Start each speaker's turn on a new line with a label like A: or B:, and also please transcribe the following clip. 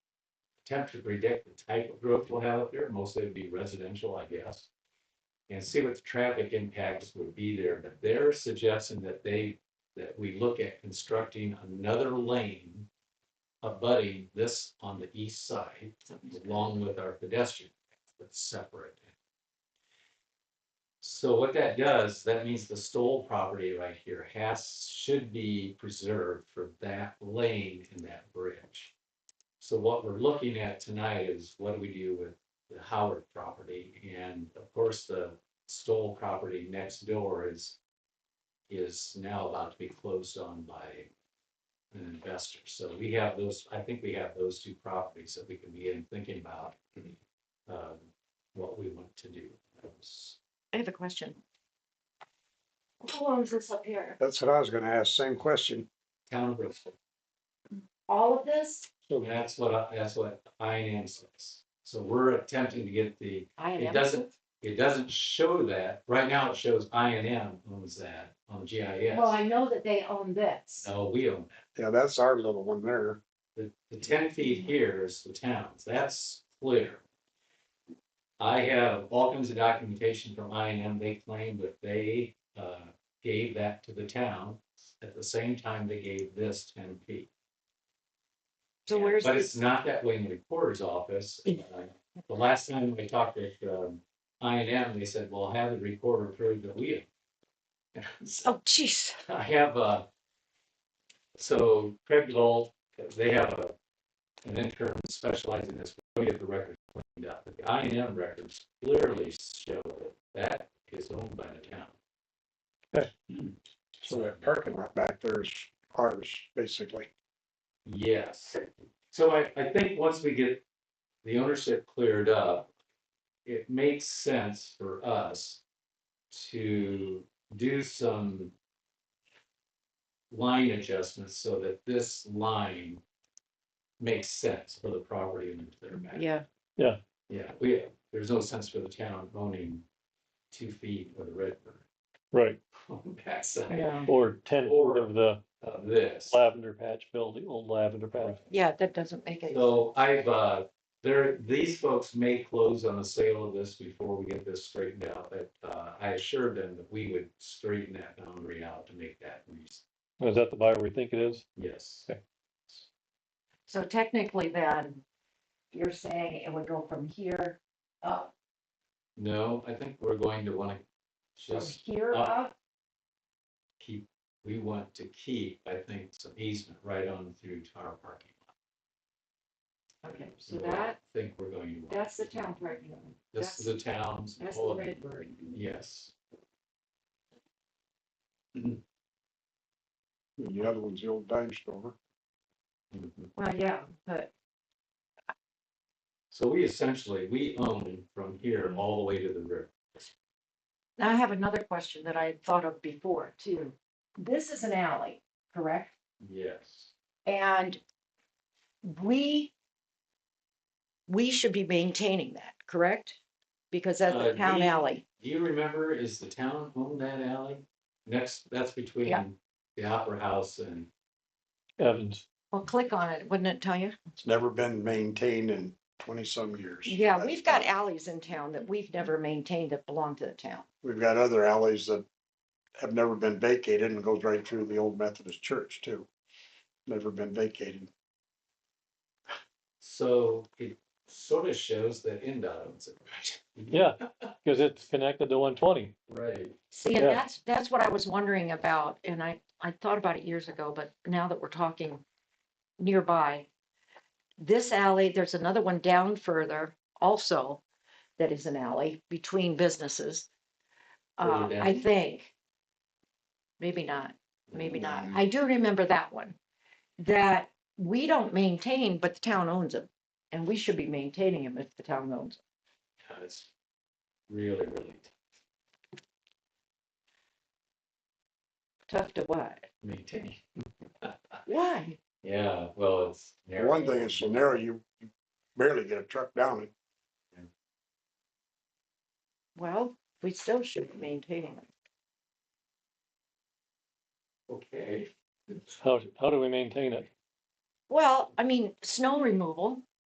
A: attempt to predict the type of growth we'll have up there, mostly it'd be residential, I guess. And see what the traffic impacts would be there, but they're suggesting that they, that we look at constructing another lane. Abutting this on the east side, along with our pedestrian, path, but separate. So what that does, that means the Stoll property right here has, should be preserved for that lane and that bridge. So what we're looking at tonight is what do we do with the Howard property? And of course, the Stoll property next door is, is now about to be closed on by an investor. So we have those, I think we have those two properties that we can begin thinking about, um, what we want to do.
B: I have a question. How long is this up here?
C: That's what I was gonna ask, same question.
A: Town of Bristol.
B: All of this?
A: And that's what, I- that's what finance is. So we're attempting to get the,
B: I
A: it doesn't, it doesn't show that. Right now it shows I and M owns that on GIS.
B: Well, I know that they own this.
A: No, we own
C: Yeah, that's our little one there.
A: that. The, the ten feet here is the town's. That's clear. I have all kinds of documentation from I and M. They claim that they, uh, gave that to the town at the same time they gave this ten feet.
B: So
A: Yeah,
B: where's
A: But
B: this?
A: it's not that way in the recorder's office. Uh, The last time I talked with, um, I and M, they said, well, have the recorder prove that we. have."
B: Oh, jeez.
A: I have, uh, so Craig Lowell, they have a, an intern specialized in this, we get the records cleaned up. The I and M records clearly show that that is owned by the town.
C: So that parking lot back there is ours, basically.
A: Yes. So I, I think once we get the ownership cleared up, it makes sense for us to do some line adjustments so that this line makes sense for the property and their back.
B: Yeah,
A: Yeah, we, there's no sense for the town owning two feet of the Redbird
D: Right,
A: on the backside
B: yeah,
D: or ten
A: Or-
D: of the
A: of this.
D: lavender patch building, old lavender patch.
B: yeah, that doesn't make it.
A: So I've, uh, there, these folks may close on the sale of this before we get this straightened out, but, uh, I assured them that we would straighten that boundary out to make that reason.
D: Is that the buyer we think it is?
A: Yes,
B: So technically then, you're saying it would go from here up,
A: no, I think we're going to wanna
B: from
A: just
B: here
A: up.
B: up?
A: keep, we want to keep, I think, some easement right on through to our parking lot.
B: Okay, so
A: I
B: that,
A: Think we're going to. want-
B: that's the town parking lot.
A: This is the town's.
B: That's
A: all
B: the
A: of it.
B: Redbird.
A: Yes,
C: And The other one's the old dime store.
A: Mhm.
B: Well, yeah, but
A: so we essentially, we own from
B: Mm-hmm.
A: here all the way to the river.
B: now I have another question that I had thought of before too. This is an alley, correct?
A: Yes.
B: And we, we should be maintaining that, correct? Because that's
A: Uh,
B: a town
A: we-
B: alley.
A: Do you remember, is the town own that alley? Next, that's
B: Yeah.
A: between the Opera House and,
D: Evans,
B: Well, click on it, wouldn't it tell you?
C: It's never been maintained in twenty-some years.
B: Yeah,
C: That's-
B: we've got alleys in town that we've never maintained that belong to the town.
C: We've got other alleys that have never been vacated and goes right through the old Methodist church too. Never been vacated.
A: so it sort of shows that NDOT owns it.
D: yeah, because it's connected to one twenty.
A: Right.
B: See, and
D: Yeah.
B: that's, that's what I was wondering about, and I, I thought about it years ago, but now that we're talking nearby, this alley, there's another one down further also that is an alley between businesses. Uh,
A: Further
B: I
A: down?
B: think. Maybe not, maybe not. I do remember that one. That we don't maintain, but the town owns them, and we should be maintaining them if the town owns them.
A: Yeah, It's really, really
B: Tough to what?
A: maintained.
B: Why?
A: Yeah, well, it's. narrow.
C: One thing is so narrow, you you barely get a truck down it.
B: Well, we still should be maintaining them.
A: Okay.
D: How, how do we maintain it?
B: Well, I mean, snow removal,